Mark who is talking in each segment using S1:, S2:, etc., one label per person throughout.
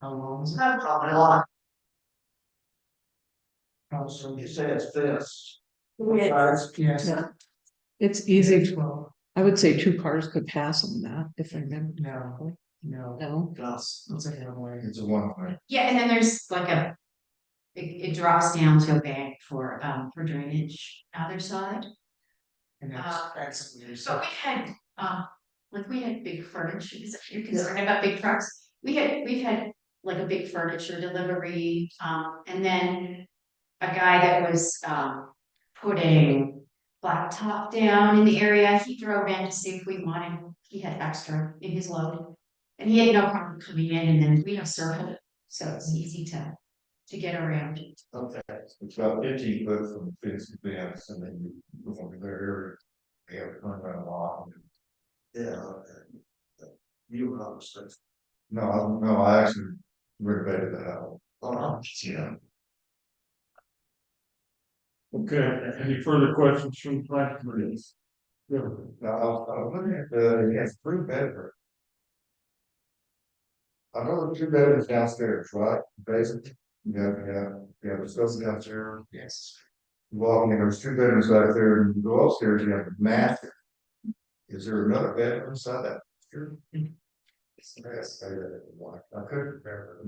S1: How long is it?
S2: Not a
S1: Probably a lot. Oh, so you say it's this. Yes. Yes.
S3: Yeah. It's easy,
S1: Well,
S3: I would say two cars could pass on that, if I remember,
S1: no, no,
S3: no,
S1: Gus, it's a one-way.
S4: It's a one way.
S2: Yeah, and then there's like a, it, it drops down to a bank for, um, for drainage other side.
S1: And
S2: Uh,
S1: that's, that's weird,
S2: So
S1: so.
S2: we had, um, like we had big furniture, is that you're concerned about big trucks? We had, we've had like a big furniture delivery, um, and then a guy that was, um, putting blacktop down in the area, he drove in to see if we wanted, he had extra in his load. And he had no problem coming in and then we have circle, so it's easy to, to get around.
S4: Okay. It's about fifteen foot from fence to fence and then you go over there. They have a turnaround lot. Yeah. You were obviously. No, I- no, I actually renovated the house. Oh, yeah.
S5: Okay, any further questions from the planning committee?
S4: Yeah. Now, I was, I was looking at the, yes, three bedroom. I know the two bedrooms downstairs, right, basically, you have, you have, you have a sofa downstairs.
S1: Yes.
S4: Well, and there's two bedrooms out there, and you go upstairs, you have a master. Is there another bedroom inside that? Sure. Yes, I, I I couldn't remember.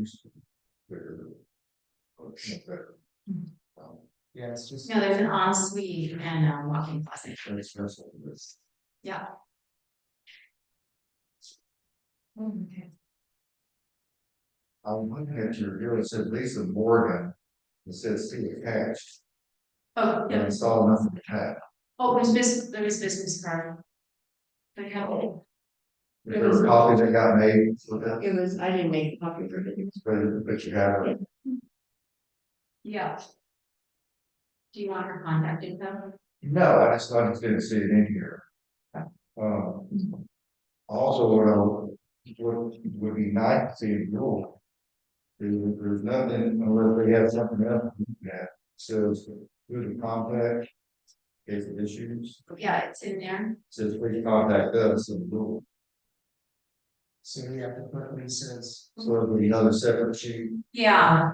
S1: Mm-hmm.
S4: Um,
S1: Yeah, it's just.
S2: No, there's an ensuite and a walk-in closet. Yeah. Okay.
S4: I'm looking at your, here it said Lisa Morgan, it says see attached,
S2: Oh,
S4: and
S2: yeah,
S4: I saw nothing attached.
S2: oh, there's business, there is business card. But how,
S4: Is there a copy that got made with that,
S6: It was, I didn't make a copy of it.
S4: but, but you have it,
S2: yeah. Do you want her contact info?
S4: no, I just, I just didn't see it in here. Um, also, what I would, what would be nice to see in rule. There's, there's nothing, unless they have something else that says who to contact. Case of issues.
S2: Yeah, it's in there.
S4: Says please contact us and we'll,
S1: So we have to put Lisa's.
S4: so it'll be another separate sheet.
S2: Yeah.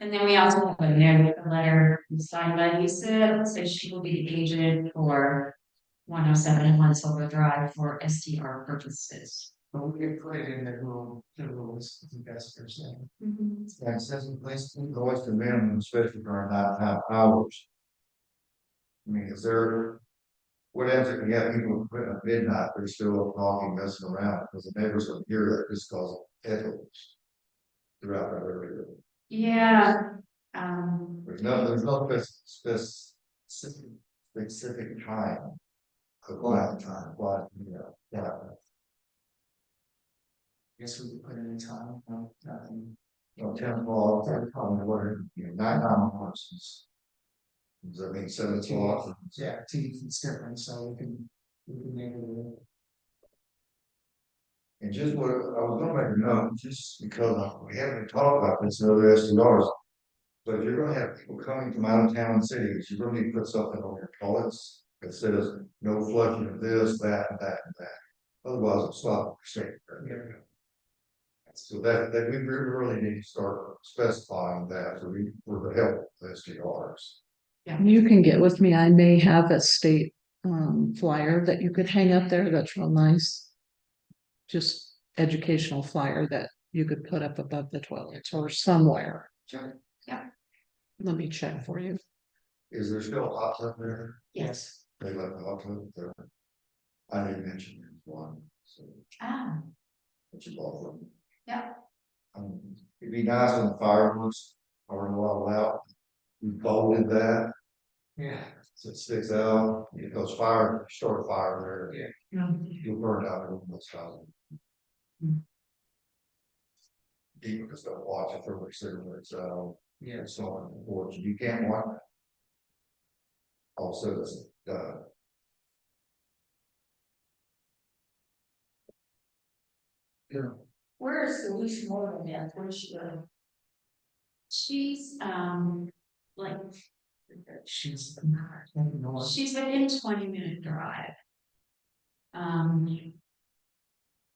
S2: And then we also have in there with a letter signed by Lisa, so she will be the agent for one oh seven and one Silver Drive for STR purposes.
S1: But we could put it in the rule, the rules, the best per se.
S6: Mm-hmm.
S4: And it says in place invoice the minimum, especially during nine half hours. I mean, is there? What happens if we have people quit at midnight, they're still up walking, messing around, because the neighbors will hear that this causes echoes. Throughout the area,
S2: Yeah, um,
S4: there's no, there's no spec- specific, specific time. Of quiet time, quiet, you know, yeah.
S1: Guess we could put it in time, no, nothing.
S4: you know, ten o'clock, ten o'clock, whatever, you know, nine hours. is- Does that mean seven o'clock?
S1: Yeah, T is different, so we can, we can make it.
S4: And just what, I was gonna make a note, just because we haven't talked about this in other S T Rs. But if you're gonna have people coming from out of town cities, you really need to put something on your toilets that says, no flushing of this, that, and that, and that. Otherwise, it's not safe. So that, that we re- really need to start specifying that for, we- for the help of S T Rs.
S3: you can get with me, I may have a state um flyer that you could hang up there, that's real nice. Just educational flyer that you could put up above the toilets or somewhere.
S2: Sure, yeah.
S3: Let me check for you,
S4: Is there still a hot tub there?
S2: yes,
S4: They left the hot tub there. I didn't mention there's one, so,
S2: ah,
S4: but you bought one.
S2: Yeah.
S4: Um, it'd be nice when the fireworks are allowed out. We bolted that,
S1: Yeah.
S4: so it sticks out, it goes fire, short fire there.
S1: Yeah.
S4: You'll burn out everyone that's housing.
S3: Hmm.
S4: People just don't watch it for which they're, it's, uh,
S1: Yeah,
S4: it's on the porch, you can't watch. it. Also, it's, uh,
S6: Where is Alicia Moore now? Where's she? uh,
S2: she's, um, like,
S1: she's. I don't know.
S2: she's within twenty minute drive. Um,